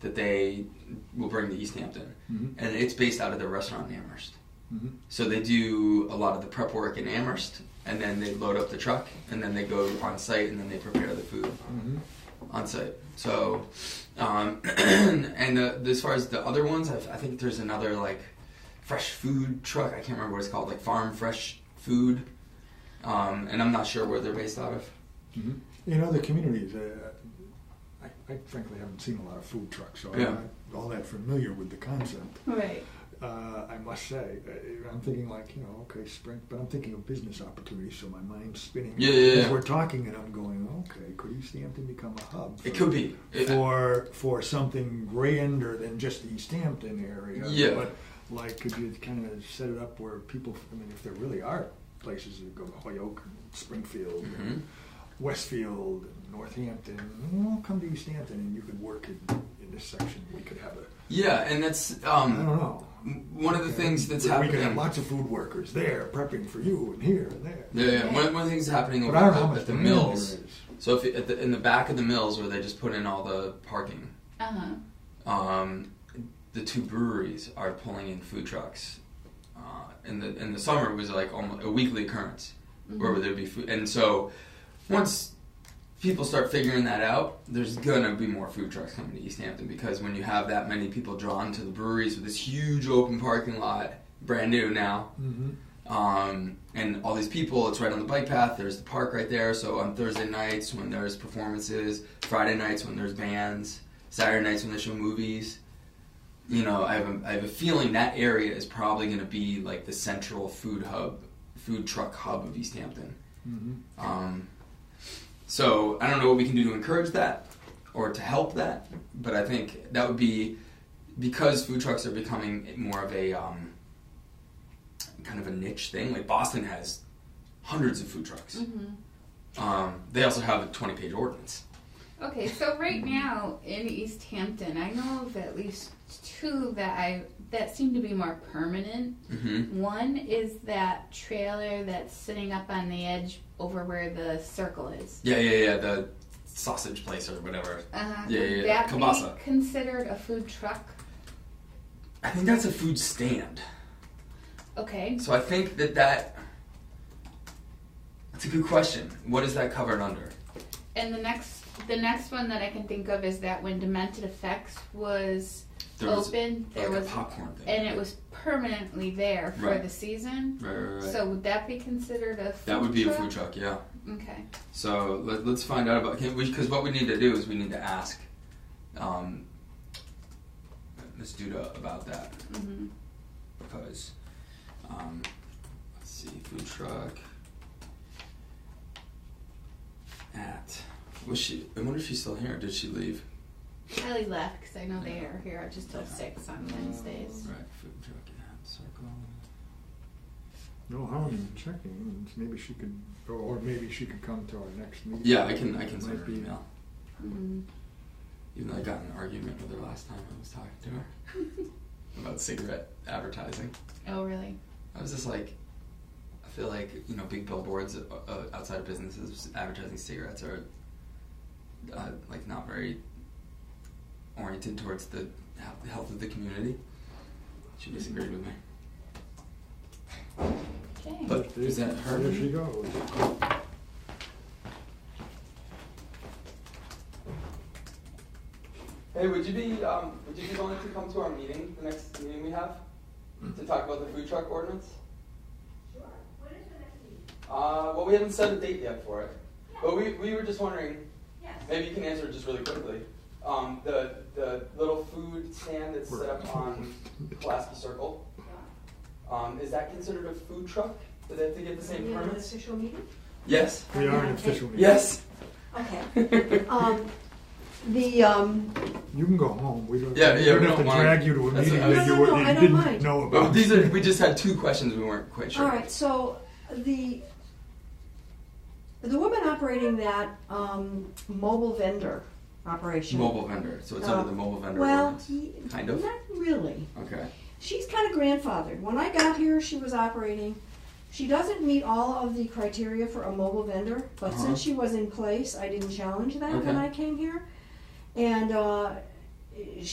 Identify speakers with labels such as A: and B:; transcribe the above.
A: that they will bring to East Hampton,
B: Mhm.
A: and it's based out of their restaurant in Amherst.
B: Mhm.
A: So they do a lot of the prep work in Amherst, and then they load up the truck, and then they go on site, and then they prepare the food
B: Mhm.
A: on site. So, um, and the, as far as the other ones, i I think there's another like fresh food truck. I can't remember what it's called, like Farm Fresh Food, um, and I'm not sure where they're based out of.
B: Mhm. In other communities, uh, I, I frankly haven't seen a lot of food trucks, so
A: Yeah.
B: I'm not all that familiar with the concept.
C: Right.
B: Uh, I must say, uh, I'm thinking like you know, okay, spring, but I'm thinking of business opportunities, so my mind's spinning.
A: Yeah, yeah,
B: As
A: yeah.
B: we're talking, and I'm going, okay, could East Hampton become a hub?
A: It could be. It-
B: for for something grander than just the East Hampton area.
A: Yeah.
B: But like, could you kind of set it up where people? I mean, if there really are places that go to Hoyoke, and Springfield,
A: Mhm.
B: and Westfield, and Northampton, well, come to East Hampton, and you could work in, in this section. We could have a.
A: Yeah, and that's
B: I
A: um,
B: don't know.
A: one of the things that's
B: we,
A: happening.
B: We could have lots of food workers there prepping for you, and here and there.
A: yeah, yeah. One, one of the things that's happening
B: But
A: over
B: I don't
A: at
B: know
A: the,
B: how much
A: at the
B: demand there
A: mills.
B: is.
A: So if at the, in the back of the mills where they just put in all the parking,
C: Uh huh.
A: um, the two breweries are pulling in food trucks. Uh, in the in the summer, it was like almost a weekly occurrence
C: Mm-hmm.
A: where there'd be food. And so once people start figuring that out, there's gonna be more food trucks coming to East Hampton because when you have that many people drawn to the breweries with this huge open parking lot, brand new now,
B: Mhm.
A: um, and all these people. It's right on the bike path. There's the park right there. So on Thursday nights when there's performances, Friday nights when there's bands, Saturday nights when they show movies. You know, I have a, I have a feeling that area is probably going to be like the central food hub, food truck hub of East Hampton.
B: Mhm.
A: Um, so I don't know what we can do to encourage that or to help that, but I think that would be because food trucks are becoming more of a um, kind of a niche thing. Like Boston has hundreds of food trucks.
C: Mm-hmm.
A: Um, they also have a twenty-page ordinance.
C: Okay, so right now in East Hampton, I know of at least two that I that seem to be more permanent.
A: Mm-hmm.
C: One is that trailer that's sitting up on the edge over where the circle is.
A: Yeah, yeah, yeah. The sausage place or whatever.
C: Uh,
A: Yeah, yeah,
C: would
A: yeah,
C: That
A: kielbasa.
C: be considered a food truck.
A: I think that's a food stand.
C: Okay.
A: So I think that that. That's a good question. What is that covered under?
C: And the next the next one that I can think of is that when Demented Effects was
A: There was
C: open, there
A: like a
C: Oh, was
A: popcorn thing.
C: and it was permanently there for
A: Right.
C: the season.
A: Right, right, right.
C: So would that be considered a food
A: that would be
C: truck?
A: a food truck, yeah.
C: Okay.
A: So let, let's find out about because what we need to do is we need to ask um, Ms. Duda about that
C: hmm
A: because um, let's see, food truck at was she? I wonder if she's still here. Did she leave?
C: Kylie left because I know they
A: Yeah.
C: are here just till
A: Yeah.
C: six on Wednesdays.
A: Right, food truck at Circle.
B: No harm in checking. Maybe she could, or, or maybe she could come to our next meeting.
A: Yeah, I can I can
B: Might
A: send her an
B: be-
A: email.
C: hmm
A: Even though I got in an argument with her last time I was talking to her about cigarette advertising.
C: Oh really?
A: I was just like, I feel like you know, big billboards uh, uh, outside of businesses advertising cigarettes are uh, like not very oriented towards the he- health of the community. She disagreed with me,
C: Okay.
A: but is that her?
B: There she goes.
A: Hey, would you be um, would you be willing to come to our meeting, the next meeting we have, to talk about the food truck ordinance? Uh, well, we haven't set a date yet for it, but we, we were just wondering. Maybe you can answer just really quickly. Um, the the little food stand that's set up on Pulaski Circle. Um, is that considered a food truck? Do they have to get the same
D: Are we on an
A: permits?
D: official meeting?
A: Yes.
B: We are
D: Okay.
B: an official meeting.
A: Yes.
D: Okay.
A: yeah,
D: Um, the, um,
B: You can go home. We don't,
A: Yeah,
B: we
A: yeah,
B: don't
A: we
B: have
A: don't
B: to
A: mind.
B: drag you to a
A: That's
B: meeting
A: what I
B: that
A: was-
B: you,
D: No, no,
B: were-
D: no,
B: you
D: I don't
B: didn't
D: mind.
B: know about.
A: Well, these are we just had two questions we weren't quite sure.
D: all right, so the, the woman operating that, um, mobile vendor operation.
A: Mobile vendor. So it's
D: Uh,
A: under the mobile vendor.
D: Well,
A: ordinance.
D: he-
A: Kind of.
D: Not really.
A: Okay.
D: She's kind of grandfathered. When I got here, she was operating. She doesn't meet all of the criteria for a mobile vendor, but
A: Uh-huh.
D: since she was in place, I didn't challenge that when
A: Okay.
D: I came here. And uh,